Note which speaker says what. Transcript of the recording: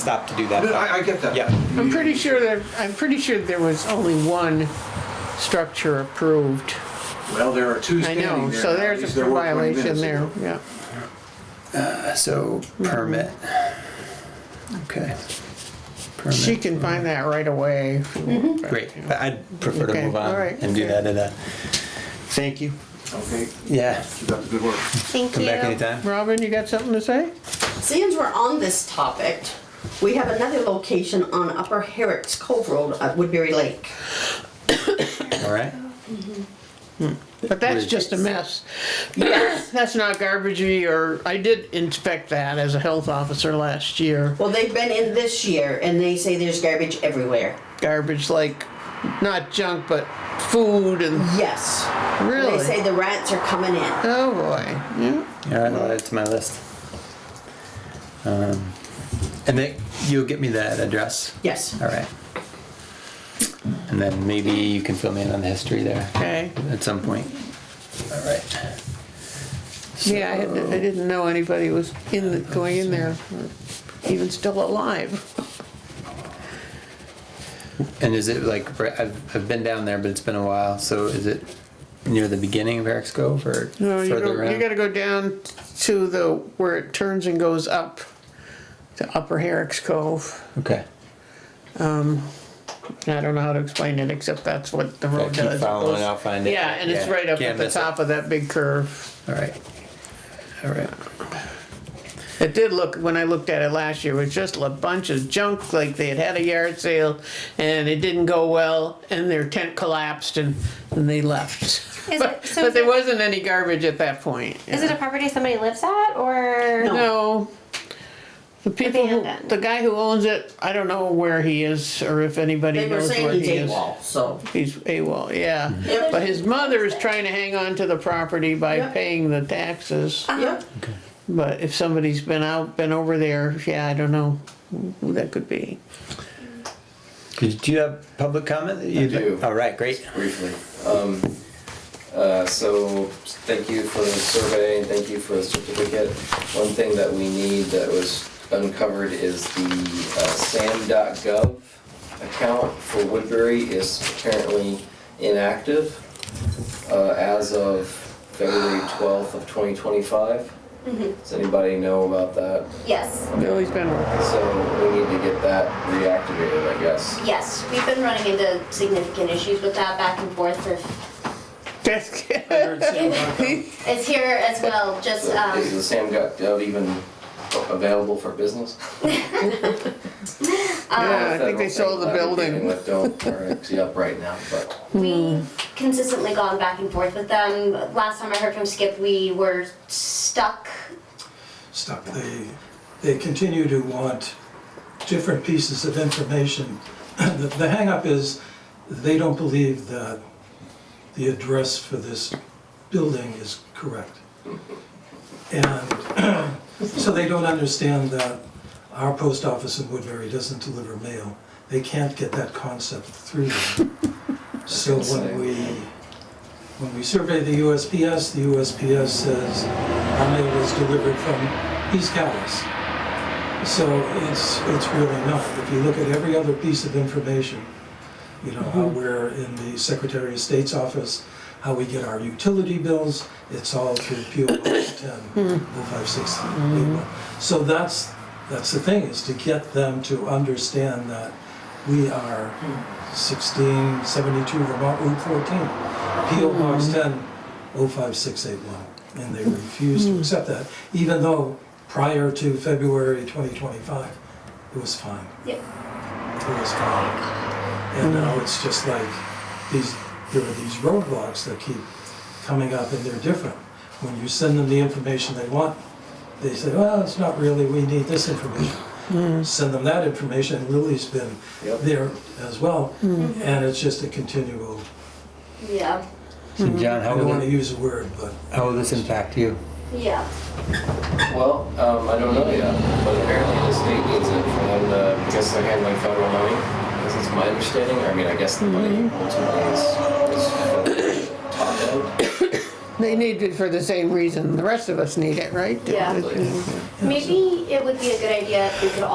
Speaker 1: stop to do that.
Speaker 2: No, I, I get that.
Speaker 1: Yeah.
Speaker 3: I'm pretty sure that, I'm pretty sure there was only one structure approved.
Speaker 2: Well, there are two
Speaker 3: I
Speaker 2: standing there.
Speaker 3: know, so
Speaker 2: now.
Speaker 3: there's
Speaker 2: These
Speaker 3: a
Speaker 2: there were 20
Speaker 3: violation
Speaker 2: minutes
Speaker 3: there,
Speaker 2: ago.
Speaker 3: yeah.
Speaker 4: So permit. Okay.
Speaker 3: She
Speaker 4: Permit.
Speaker 3: can find that right away.
Speaker 4: Mm-hmm. Great. I- I'd prefer to
Speaker 3: Okay,
Speaker 4: move on
Speaker 3: all right,
Speaker 4: and do
Speaker 3: okay.
Speaker 4: that at a, thank you.
Speaker 2: Okay,
Speaker 4: Yeah.
Speaker 2: keep up the good work.
Speaker 5: Thank
Speaker 4: Come back
Speaker 5: you.
Speaker 4: anytime.
Speaker 3: Robin, you got something to say?
Speaker 6: Since we're on this topic, we have another location on Upper Herrick's Cove Road at Woodbury Lake.
Speaker 4: All right.
Speaker 3: But that's just a mess.
Speaker 6: Yes.
Speaker 3: That's not garbagey or, I did inspect that as a health officer last year.
Speaker 6: Well, they've been in this year and they say there's garbage everywhere.
Speaker 3: Garbage like, not junk, but food and,
Speaker 6: Yes.
Speaker 3: Really?
Speaker 6: They say the rats are coming in.
Speaker 3: oh boy, yeah.
Speaker 4: All right. I'll add it to my list. Um, and then you'll get me that address.
Speaker 6: Yes.
Speaker 4: All right. And then maybe you can fill me in on the history there
Speaker 3: Okay,
Speaker 4: at some point. All right.
Speaker 3: yeah, I had- I didn't know anybody was in, the- going in there, or even still alive.
Speaker 4: And is it like, right- I've, I've been down there, but it's been a while, so is it near the beginning of Eric's Cove or
Speaker 3: No, you
Speaker 4: further
Speaker 3: go, you
Speaker 4: around?
Speaker 3: gotta go down to the, where it turns and goes up to Upper Herrick's Cove.
Speaker 4: Okay,
Speaker 3: I don't know how to explain it, except that's what the
Speaker 4: Yeah,
Speaker 3: road
Speaker 4: keep
Speaker 3: does.
Speaker 4: following,
Speaker 3: Goes-
Speaker 4: I'll find it.
Speaker 3: Yeah, and it's
Speaker 4: Yeah,
Speaker 3: right up
Speaker 4: can't
Speaker 3: at the
Speaker 4: miss it.
Speaker 3: top of that big curve.
Speaker 4: all right, all right.
Speaker 3: It did look, when I looked at it last year, it was just a bunch of junk, like they had had a yard sale and it didn't go well and their tent collapsed and, and they left.
Speaker 5: Is it, so
Speaker 3: But
Speaker 5: is
Speaker 3: there
Speaker 5: it,
Speaker 3: wasn't any garbage at that point.
Speaker 5: is it a property somebody lives at or?
Speaker 3: No. The people, who-
Speaker 5: Abandoned.
Speaker 3: the guy who owns it, I don't know where he is or if anybody
Speaker 6: They were
Speaker 3: knows where
Speaker 6: saying he's
Speaker 3: he is.
Speaker 6: AWOL, so.
Speaker 3: He's AWOL, yeah.
Speaker 6: Yeah.
Speaker 3: But his mother is trying to hang on to the property by
Speaker 6: Yep.
Speaker 3: paying the taxes.
Speaker 6: Yep.
Speaker 3: But if somebody's been out, been over there, yeah, I don't know who that could be.
Speaker 4: Did- Do you have public comment? that you'd-
Speaker 7: do.
Speaker 4: All right, great.
Speaker 7: briefly. Um, uh, so thank you for the survey and thank you for the certificate. One thing that we need that was uncovered is the uh, SAM.gov account for Woodbury is apparently inactive uh, as of February 12th of 2025. Does anybody know about that?
Speaker 8: Yes,
Speaker 3: Billy's been,
Speaker 7: So we need to get that reactivated, I guess.
Speaker 8: yes, we've been running into significant issues with that back and forth. If-
Speaker 3: that's,
Speaker 8: It's here as well, just,
Speaker 7: So Is the
Speaker 8: um,
Speaker 7: SAM gov even available for business?
Speaker 3: yeah, I think they sold the building.
Speaker 7: Don't, or it's up right now, but
Speaker 8: we consistently gone back and forth with them. Last time I heard from Skip, we were stuck.
Speaker 9: stuck. They, they continue to want different pieces of information. The the hangup is, they don't believe that the address for this building is correct. And so they don't understand that our post office in Woodbury doesn't deliver mail. They can't get that concept through them. So when we, when we survey the USPS, the USPS says our mail was delivered from East Callis. So it's, it's really not. If you look at every other piece of information, you know, how we're in the Secretary of State's office, how we get our utility bills, it's all through PO Box 10, 0561. So that's, that's the thing, is to get them to understand that we are 1672 Vermont Route 14, PO Box 10, 05681. And they refuse to accept that, even though prior to February 2025, it was fine.
Speaker 8: Yep.
Speaker 9: It was fine. And now it's just like these, there are these roadblocks that keep coming up and they're different. When you send them the information they want, they say, well, it's not really, we need this information. Send them that information, Lily's been
Speaker 7: Yep.
Speaker 9: there as well. And it's just a continual,
Speaker 8: Yeah,
Speaker 4: So
Speaker 3: Mm-hmm.
Speaker 4: John,
Speaker 9: I
Speaker 4: how
Speaker 9: don't want to
Speaker 4: will,
Speaker 9: use a word, but
Speaker 4: how will this impact you?
Speaker 8: yeah.
Speaker 7: well, um, I don't know yet. But apparently the state needs it for them to, because they're handling federal money. This is my understanding. I mean, I guess the money
Speaker 3: Mm-hmm.
Speaker 7: ultimately is, is federal top end.
Speaker 3: They need it for the same reason the rest of us need it, right?
Speaker 8: Yeah. Maybe it would be a good idea if we could all